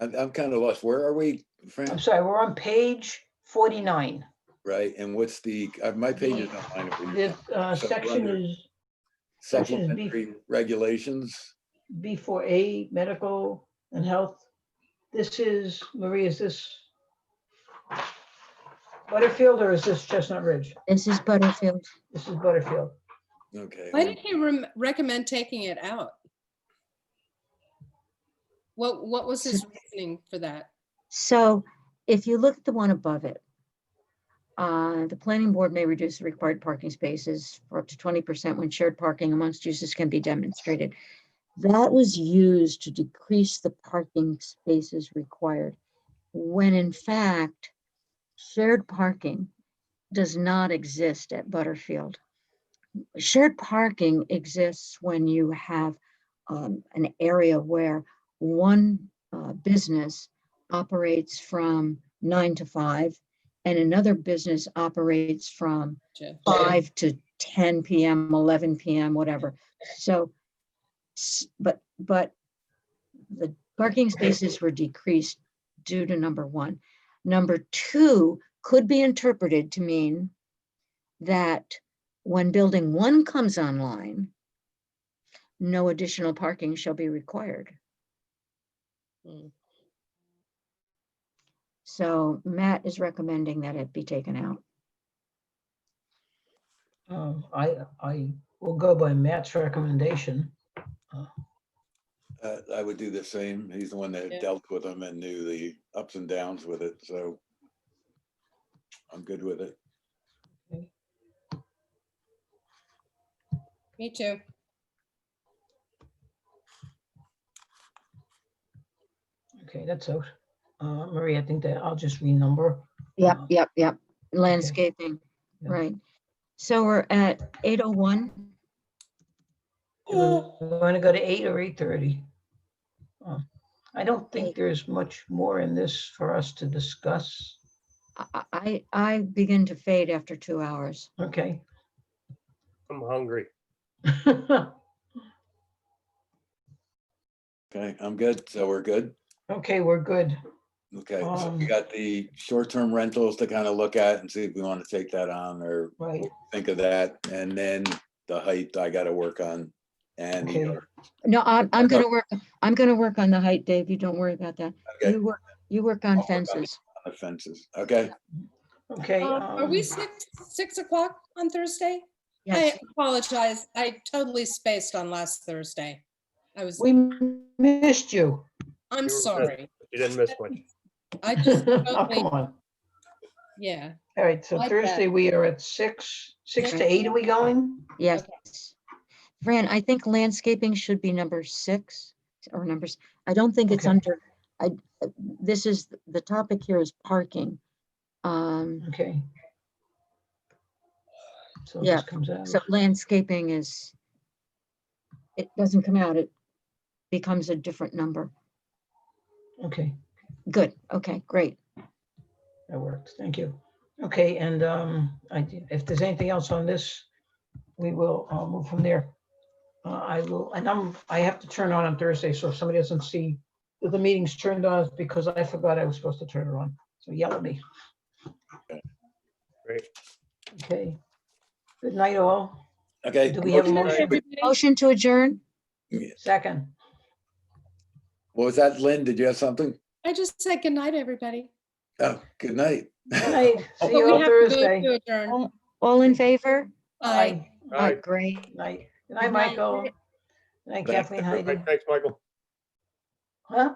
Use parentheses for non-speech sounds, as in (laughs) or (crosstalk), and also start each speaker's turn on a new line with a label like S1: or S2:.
S1: I'm, I'm kind of lost. Where are we,
S2: I'm
S1: Fran?
S2: sorry, we're on page forty-nine.
S1: Right, and what's the, uh, my page is not mine. if
S2: The
S1: you-
S2: uh,
S1: So
S2: section
S1: under-
S2: is section is B.
S1: Supplementary regulations,
S2: B four A, medical and health. This is, Marie, is this Butterfield or is this Chestnut Ridge?
S3: This is Butterfield.
S2: This is Butterfield.
S1: okay.
S4: Why did he rem- recommend taking it out? What, what
S2: (laughs)
S4: was his reasoning for that?
S3: So if you look at the one above it, uh, the planning board may reduce the required parking spaces for up to twenty percent when shared parking amongst uses can be demonstrated. That was used to decrease the parking spaces required, when in fact, shared parking does not exist at Butterfield. Shared parking exists when you have um, an area where one uh, business operates from nine to five, and another business operates from
S4: Jeff?
S3: five to ten PM, eleven PM, whatever. So, s- but, but the parking spaces were decreased due to number one. Number two could be interpreted to mean that when building one comes online, no additional parking shall be required.
S4: Hmm.
S3: So Matt is recommending that it be taken out.
S2: Um, I, I will go by Matt's recommendation.
S1: Uh, I would do the same. He's the one
S4: Yeah.
S1: that dealt with them and knew the ups and downs with it, so I'm good with it.
S4: Me too.
S2: Okay, that's out. Uh, Marie, I think that I'll just renumber.
S3: Yep,
S2: Uh,
S3: yep, yep. Landscaping,
S2: Yeah.
S3: right. So we're at eight oh one.
S2: Want to go to eight or eight thirty? I don't think there's much more in this for us to discuss.
S3: I, I, I begin to fade after two hours. (laughs)
S2: Okay.
S5: I'm hungry.
S1: Okay, I'm good, so we're good.
S2: Okay, we're good.
S1: Okay, so we
S2: Um,
S1: got the short-term rentals to kind of look at and see if we want to take that on or
S2: Right.
S1: think of that. And then the height I gotta work on and
S2: Okay.
S1: ER.
S3: No, I'm, I'm gonna work, I'm gonna work on the height, Dave. You don't worry about that.
S1: Okay.
S3: You work, you work
S1: I'll
S3: on
S1: work on it.
S3: fences.
S1: on the fences, okay?
S2: Okay.
S4: Um, Are we
S2: um,
S4: six, six o'clock on Thursday?
S3: Yes,
S4: I apologize. I totally spaced on last Thursday. I was,
S2: We missed you.
S4: I'm
S5: were-
S4: sorry.
S5: You didn't miss much.
S4: I
S2: Oh, (laughs)
S4: just, totally-
S2: come on.
S4: yeah.
S2: All right, so
S4: Like that.
S2: Thursday, we are at six, six to eight, are we going?
S3: yes. Fran, I think landscaping should be number six or numbers. I don't think it's
S2: Okay.
S3: under, I, this is, the topic here is parking. Um,
S2: Okay. So
S3: Yeah,
S2: this comes out.
S3: So landscaping is, it doesn't come out, it becomes a different number.
S2: Okay,
S3: Good, okay, great.
S2: that works, thank you. Okay, and um, I d- if there's anything else on this, we will uh, move from there. Uh, I will, and I'm, I have to turn on on Thursday, so if somebody doesn't see that the meeting's turned on, it's because I forgot I was supposed to turn it on, so yell at me.
S5: Great.
S2: Okay. Good night, all.
S1: Okay.
S2: Do we have a
S1: motion-
S2: motion?
S1: wait,
S3: Motion to adjourn?
S2: Second.
S1: What was that, Lynn? Did you have something?
S4: I just said good night, everybody.
S1: Oh, good night.
S2: Good night.
S4: But
S2: See
S4: Oh, we
S2: you on
S4: have to move
S2: Thursday. Oh
S4: to adjourn.
S3: All- All in favor?
S4: Bye.
S5: All right.
S3: Uh, Great.
S2: Good Night. Good
S3: Good
S2: night,
S3: night.
S2: Michael. Good night,
S1: Thanks.
S2: Kathleen,
S5: All
S2: Heidi.
S5: right, Thanks, Michael.
S2: Huh?